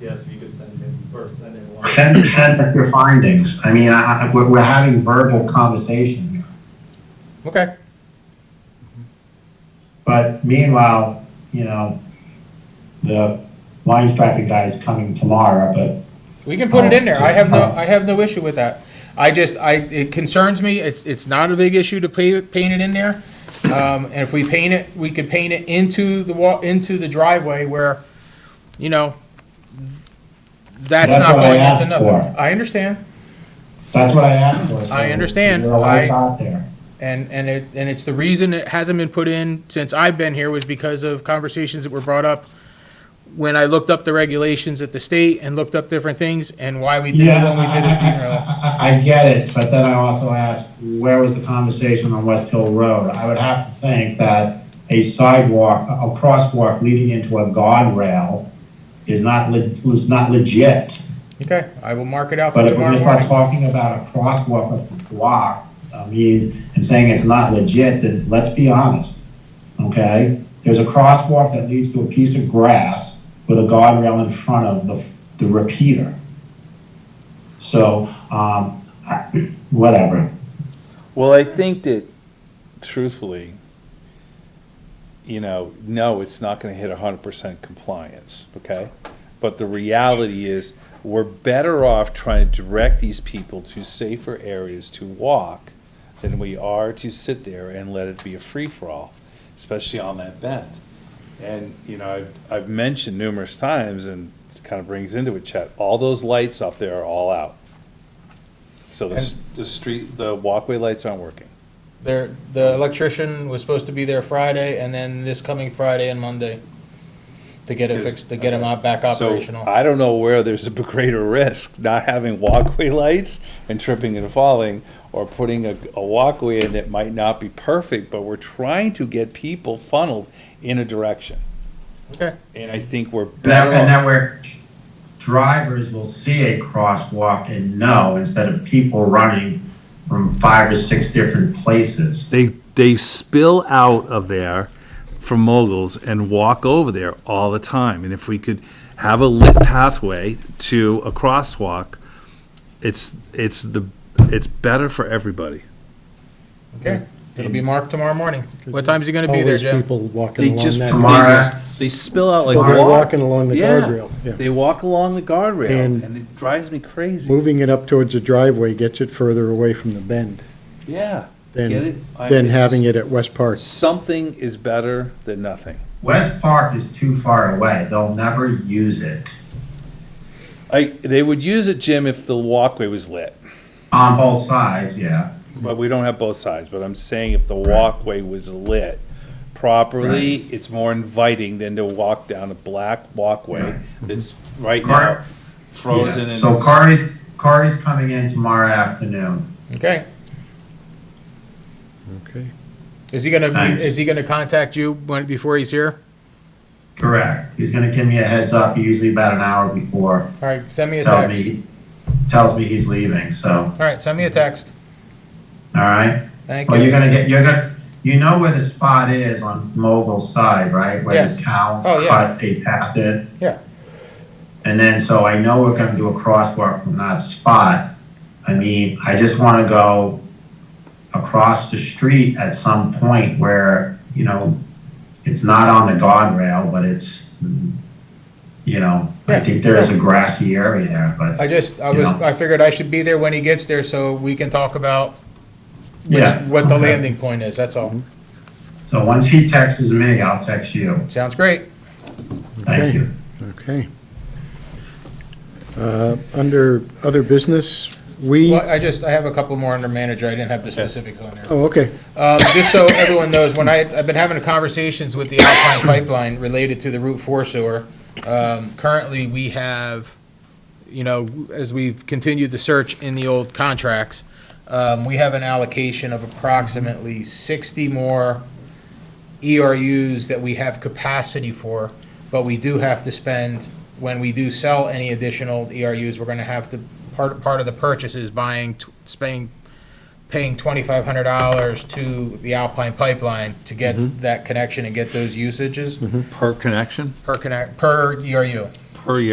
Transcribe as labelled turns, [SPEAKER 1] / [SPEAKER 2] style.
[SPEAKER 1] yes, if you could send him, or send him one.
[SPEAKER 2] Send, send us your findings. I mean, I, I- we're, we're having verbal conversation.
[SPEAKER 3] Okay.
[SPEAKER 2] But meanwhile, you know, the line striping guy is coming tomorrow, but
[SPEAKER 3] We can put it in there. I have no,
[SPEAKER 2] Oh.
[SPEAKER 3] I have no issue with that. I just, I, it concerns me. It's, it's not a big issue to pa- paint it in there. Um, and if we paint it, we could paint it into the wa, into the driveway where, you know, that's
[SPEAKER 2] That's
[SPEAKER 3] not
[SPEAKER 2] what I
[SPEAKER 3] going
[SPEAKER 2] asked
[SPEAKER 3] into nothing.
[SPEAKER 2] for.
[SPEAKER 3] I understand.
[SPEAKER 2] that's what I asked for. so
[SPEAKER 3] I understand.
[SPEAKER 2] You're right
[SPEAKER 3] I-
[SPEAKER 2] about there.
[SPEAKER 3] And, and it, and it's the reason it hasn't been put in since I've been here was because of conversations that were brought up when I looked up the regulations at the state and looked up different things and why we did it
[SPEAKER 2] Yeah,
[SPEAKER 3] when we did it.
[SPEAKER 2] I- I-
[SPEAKER 3] you know.
[SPEAKER 2] I, I- I get it, but then I also ask, where was the conversation on West Hill Road? I would have to think that a sidewalk, a a crosswalk leading into a guardrail is not, le- is not legit.
[SPEAKER 3] Okay, I will mark it out for
[SPEAKER 2] But if we're
[SPEAKER 3] tomorrow
[SPEAKER 2] gonna start talking
[SPEAKER 3] morning.
[SPEAKER 2] about a crosswalk of the block, I mean, and saying it's not legit, then let's be honest, okay? There's a crosswalk that leads to a piece of grass with a guardrail in front of the, the repeater. So, um, I- whatever,
[SPEAKER 4] Well, I think that truthfully, you know, no, it's not gonna hit hundred percent compliance, okay? But the reality is, we're better off trying to direct these people to safer areas to walk than we are to sit there and let it be a free-for-all, especially on that bend. And, you know, I've, I've mentioned numerous times, and it kind of brings into it, Chet, all those lights up there are all out. So the, s- the street, the walkway lights aren't working.
[SPEAKER 3] There, the electrician was supposed to be there Friday and then this coming Friday and Monday to get it
[SPEAKER 4] Is-
[SPEAKER 3] fixed, to get him out back operational.
[SPEAKER 4] So I don't know where there's a greater risk, not having walkway lights and tripping and falling, or putting a, a walkway in that might not be perfect, but we're trying to get people funneled in a direction.
[SPEAKER 3] Okay.
[SPEAKER 4] And I think we're
[SPEAKER 2] and that,
[SPEAKER 4] better
[SPEAKER 2] and
[SPEAKER 4] off-
[SPEAKER 2] that where drivers will see a crosswalk and know, instead of people running from five or six different places.
[SPEAKER 4] They, they spill out of there from moguls and walk over there all the time. And if we could have a lit pathway to a crosswalk, it's, it's the, it's better for everybody.
[SPEAKER 3] Okay, it'll be marked tomorrow morning. What time's he gonna be there,
[SPEAKER 5] Always
[SPEAKER 3] Jim?
[SPEAKER 5] People walking
[SPEAKER 4] They
[SPEAKER 5] along
[SPEAKER 4] just,
[SPEAKER 5] that.
[SPEAKER 2] Tomorrow.
[SPEAKER 4] they, s- they spill out like
[SPEAKER 5] Well, they're
[SPEAKER 4] water.
[SPEAKER 5] walking along the
[SPEAKER 4] Yeah.
[SPEAKER 5] guardrail, yeah.
[SPEAKER 4] They walk along the guardrail
[SPEAKER 5] And-
[SPEAKER 4] and it drives me crazy.
[SPEAKER 5] Moving it up towards the driveway gets it further away from the bend
[SPEAKER 4] Yeah. Get it?
[SPEAKER 5] than,
[SPEAKER 4] I-
[SPEAKER 5] than having it at West Park.
[SPEAKER 4] Something is better than nothing.
[SPEAKER 2] West Park is too far away. They'll never use it
[SPEAKER 4] I, they would use it, Jim, if the walkway was lit,
[SPEAKER 2] on both sides. Yeah.
[SPEAKER 4] but we don't have both sides, but I'm saying if the walkway was lit properly, it's more inviting than to walk down a black walkway that's right
[SPEAKER 2] Car-
[SPEAKER 4] now frozen
[SPEAKER 2] Yeah.
[SPEAKER 4] and.
[SPEAKER 2] So Corey's Corey's coming in tomorrow afternoon.
[SPEAKER 3] Okay,
[SPEAKER 5] Okay.
[SPEAKER 3] is he gonna,
[SPEAKER 2] Thanks.
[SPEAKER 3] be- is he gonna contact you when, before he's here?
[SPEAKER 2] Correct. He's going to give me a heads up usually about an hour before.
[SPEAKER 3] All right, send me a
[SPEAKER 2] Tells
[SPEAKER 3] text.
[SPEAKER 2] me tells me he's leaving. So
[SPEAKER 3] All right, send me a text.
[SPEAKER 2] all right.
[SPEAKER 3] Thank
[SPEAKER 2] Well, you're
[SPEAKER 3] you.
[SPEAKER 2] gonna get you're gonna you know where the spot is on Mogul's side, right? Where
[SPEAKER 3] Yes.
[SPEAKER 2] the town
[SPEAKER 3] Oh, yeah.
[SPEAKER 2] cut a path in.
[SPEAKER 3] Yeah.
[SPEAKER 2] And then, so I know we're gonna do a crosswalk from that spot. I mean, I just wanna go across the street at some point where, you know, it's not on the guardrail, but it's, mm, you know, I
[SPEAKER 3] Yeah,
[SPEAKER 2] think there is a grassy area there, but
[SPEAKER 3] I just, I
[SPEAKER 2] You
[SPEAKER 3] was,
[SPEAKER 2] know.
[SPEAKER 3] I figured I should be there when he gets there so we can talk about which,
[SPEAKER 2] yeah.
[SPEAKER 3] what the
[SPEAKER 2] okay.
[SPEAKER 3] landing point is, that's all.
[SPEAKER 2] So once he texts me, I'll text you.
[SPEAKER 3] Sounds great.
[SPEAKER 2] Thank
[SPEAKER 5] Okay.
[SPEAKER 2] you.
[SPEAKER 5] Okay. Uh, Under other business, we,
[SPEAKER 3] Well,
[SPEAKER 5] oh,
[SPEAKER 3] I just, I have a couple more under manager, I didn't have the specifics on there.
[SPEAKER 5] okay,
[SPEAKER 3] Um, just so everyone knows, when I, I've been having conversations with the Alpine Pipeline related to the Route Four sewer. Um, currently, we have, you know, as we've continued the search in the old contracts, um, we have an allocation of approximately sixty more ERUs that we have capacity for, but we do have to spend, when we do sell any additional ERUs, we're gonna have to, part, part of the purchase is buying, t- spending paying twenty-five hundred dollars to the Alpine Pipeline to get that connection and get those usages
[SPEAKER 4] Per connection,
[SPEAKER 3] per E connect, per ERU.
[SPEAKER 4] per year.